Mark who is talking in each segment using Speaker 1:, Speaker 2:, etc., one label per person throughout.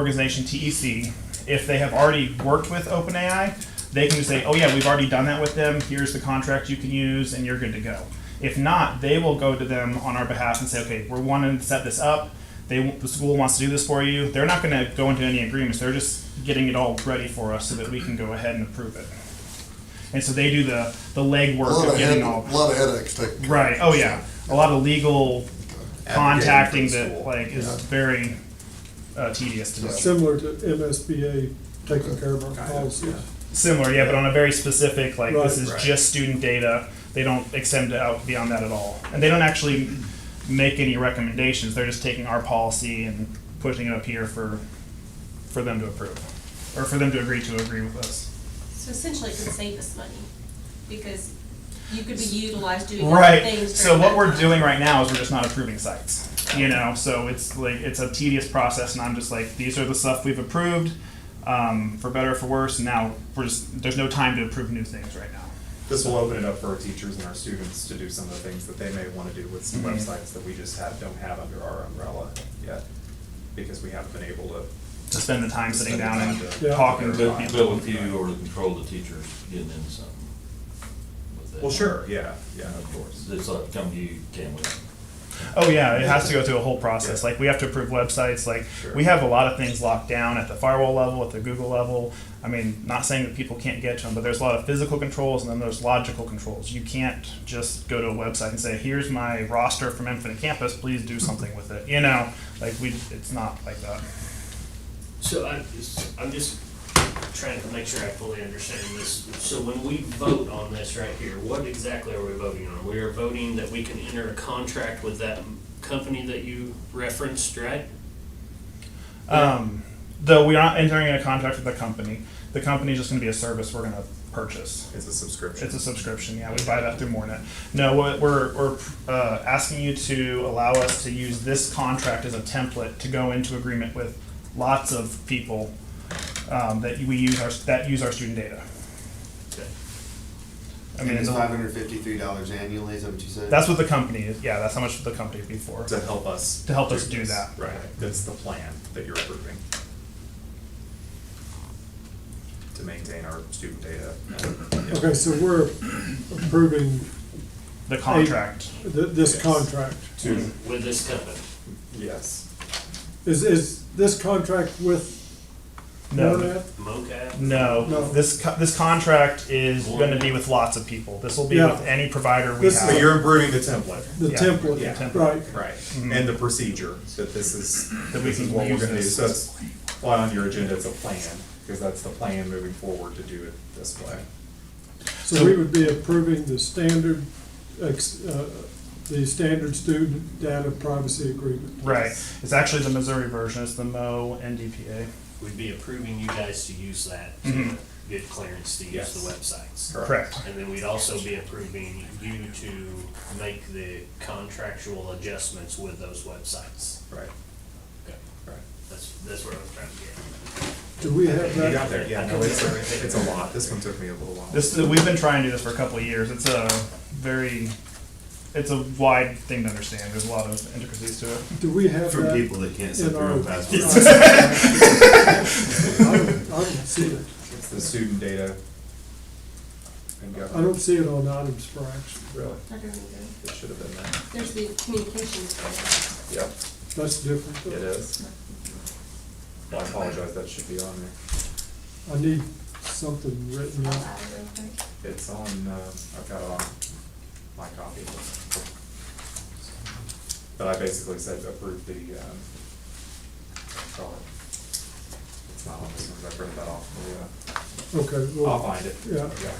Speaker 1: organization TEC, if they have already worked with OpenAI, they can just say, oh yeah, we've already done that with them. Here's the contract you can use, and you're good to go. If not, they will go to them on our behalf and say, okay, we're wanting to set this up. They the school wants to do this for you. They're not going to go into any agreements. They're just getting it all ready for us so that we can go ahead and approve it. And so they do the the
Speaker 2: A
Speaker 1: legwork
Speaker 2: lot
Speaker 1: of
Speaker 2: of head,
Speaker 1: getting
Speaker 2: a
Speaker 1: all
Speaker 2: lot of headaches taken. care
Speaker 1: right. Oh
Speaker 2: of.
Speaker 1: yeah, a lot of legal
Speaker 3: Advocating
Speaker 1: contacting
Speaker 3: for the
Speaker 1: that
Speaker 3: school.
Speaker 1: like is
Speaker 2: Yeah.
Speaker 1: very uh, tedious to do.
Speaker 4: Similar to MSBA taking care of our
Speaker 3: Kind of,
Speaker 4: policies.
Speaker 1: Similar, yeah, but on a very specific, like, this
Speaker 4: Right.
Speaker 1: is
Speaker 3: Right.
Speaker 1: just student data. They don't extend it out beyond that at all. And they don't actually make any recommendations. They're just taking our policy and pushing it up here for, for them to approve, or for them to agree to agree with us.
Speaker 5: So essentially, it could save us money, because you could be utilized doing other
Speaker 1: Right,
Speaker 5: things.
Speaker 1: so
Speaker 5: during
Speaker 1: what
Speaker 5: that
Speaker 1: we're
Speaker 5: time.
Speaker 1: doing right now is we're just not approving sites, you know, so it's like, it's a tedious process, and I'm just like, these are the stuff we've approved, um, for better or for worse, and now we're just, there's no time to approve new things right now.
Speaker 6: This will open it up for our teachers and our students to do some of the things that they may want to do with some
Speaker 1: Mhm.
Speaker 6: websites that we just have, don't have under our umbrella yet. Because we haven't been able to,
Speaker 1: to spend the time sitting
Speaker 6: Spend the
Speaker 1: down
Speaker 6: time to-
Speaker 1: and
Speaker 4: Yeah.
Speaker 1: talking to
Speaker 6: Right.
Speaker 7: But,
Speaker 1: people.
Speaker 7: but with you or the control of the teachers getting into something with that.
Speaker 6: well, sure, yeah, yeah, of course.
Speaker 7: It's like, come to you, can't we?
Speaker 1: Oh yeah, it has to go through a whole process. Like we have to approve websites. Like
Speaker 6: Sure.
Speaker 1: we have a lot of things locked down at the firewall level, at the Google level. I mean, not saying that people can't get to them, but there's a lot of physical controls and then there's logical controls. You can't just go to a website and say, "Here's my roster from Infinite Campus. Please do something with it." You know, like we, it's not like that.
Speaker 8: So I'm, just- I'm just trying to make sure I fully understand this. So when we vote on this right here, what exactly are we voting on? We are voting that we can enter a contract with that company that you referenced, right?
Speaker 1: Um, though we aren't entering a contract with the company. The company is just going to be a service we're going to purchase.
Speaker 6: It's a subscription.
Speaker 1: It's a subscription, yeah, we buy that through Mornet. No, what we're, we're uh, asking you to allow us to use this contract as a template to go into agreement with lots of people um, that we use our, that use our student data.
Speaker 8: Okay.
Speaker 1: I mean,
Speaker 3: it's
Speaker 1: the-
Speaker 3: five hundred fifty-three dollars annually, is that what you said?
Speaker 1: that's what the company is, yeah, that's how much the company would be for.
Speaker 6: To help us.
Speaker 1: To help us do
Speaker 6: this.
Speaker 1: that.
Speaker 6: Right, that's the plan that you're approving. To maintain our student data. Yeah.
Speaker 4: Okay, so we're approving
Speaker 1: The contract,
Speaker 4: th- this
Speaker 6: Yes.
Speaker 4: contract.
Speaker 6: To,
Speaker 8: With this company.
Speaker 6: yes,
Speaker 4: Is, is this contract with
Speaker 1: No.
Speaker 4: Monad?
Speaker 8: MoCap?
Speaker 1: no,
Speaker 4: No.
Speaker 1: this, co- this contract is gonna be with lots of people. This will be
Speaker 4: Yeah.
Speaker 1: with any provider we
Speaker 4: This is-
Speaker 1: have.
Speaker 6: but you're improving the template.
Speaker 4: The
Speaker 1: Yeah,
Speaker 4: template,
Speaker 6: yeah,
Speaker 1: template.
Speaker 4: right.
Speaker 6: Right,
Speaker 4: Mm-hmm.
Speaker 6: and the procedure, that this is,
Speaker 1: That we
Speaker 6: this is
Speaker 1: can
Speaker 6: what we're
Speaker 1: use
Speaker 6: gonna do,
Speaker 1: this.
Speaker 6: so that's why on your agenda it's a plan, because that's the plan moving forward to do it this way.
Speaker 4: So we would be approving the standard, ex- uh, the standard student data privacy agreement.
Speaker 1: Right, it's actually the Missouri version, it's the Mo NDPA.
Speaker 8: We'd be approving you guys to use that
Speaker 1: Mhm.
Speaker 8: to get clearance to use
Speaker 6: Mm-hmm. Yes.
Speaker 8: the websites.
Speaker 1: Correct.
Speaker 8: And then we'd also be approving you to make the contractual adjustments with those websites.
Speaker 6: Right,
Speaker 8: Okay.
Speaker 6: right.
Speaker 8: That's, that's where I was trying to get.
Speaker 4: Do we have
Speaker 6: You
Speaker 4: that?
Speaker 6: got there, yeah, no, it's, a- it's a lot, this one took me a little while.
Speaker 1: This we've been trying to do this for a couple of years. It's a very, it's a wide thing to understand. There's a lot of intricacies to it.
Speaker 4: Do we have
Speaker 3: For
Speaker 4: that?
Speaker 3: people that can't set
Speaker 4: in
Speaker 3: their
Speaker 4: our-
Speaker 3: own passwords.
Speaker 4: I don't- I don't see it.
Speaker 6: It's the student data. and
Speaker 4: I don't see it on items for action.
Speaker 6: Really,
Speaker 5: I don't either.
Speaker 6: it should have been that,
Speaker 5: There's the communications. part.
Speaker 6: yep,
Speaker 4: That's different.
Speaker 6: it is. Well, I apologize, that should be on
Speaker 4: I need something written
Speaker 5: I'll
Speaker 4: out.
Speaker 5: add it real quick.
Speaker 6: there, it's on, uh, I've got it on my copy. But I basically said approve the, um, call it. It's not on this one, I printed that off, but,
Speaker 4: Okay,
Speaker 6: uh, I'll
Speaker 4: well,
Speaker 6: find it.
Speaker 4: yeah.
Speaker 6: Yeah.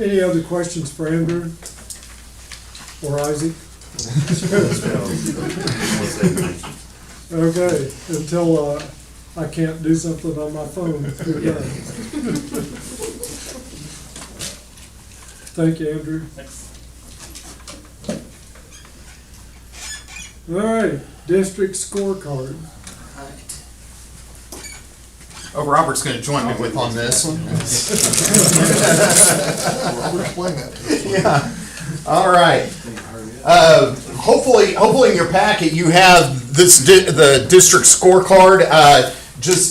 Speaker 4: any other questions for Andrew? Or Isaac? Okay, until, uh, I can't do something on my phone. we're done. Thank you, Andrew. All right, district scorecard.
Speaker 9: Oh, Robert's going to join me with on this.
Speaker 2: Explain that.
Speaker 9: All right. Uh, hopefully, hopefully in your packet you have this di- the district scorecard. Uh,
Speaker 6: just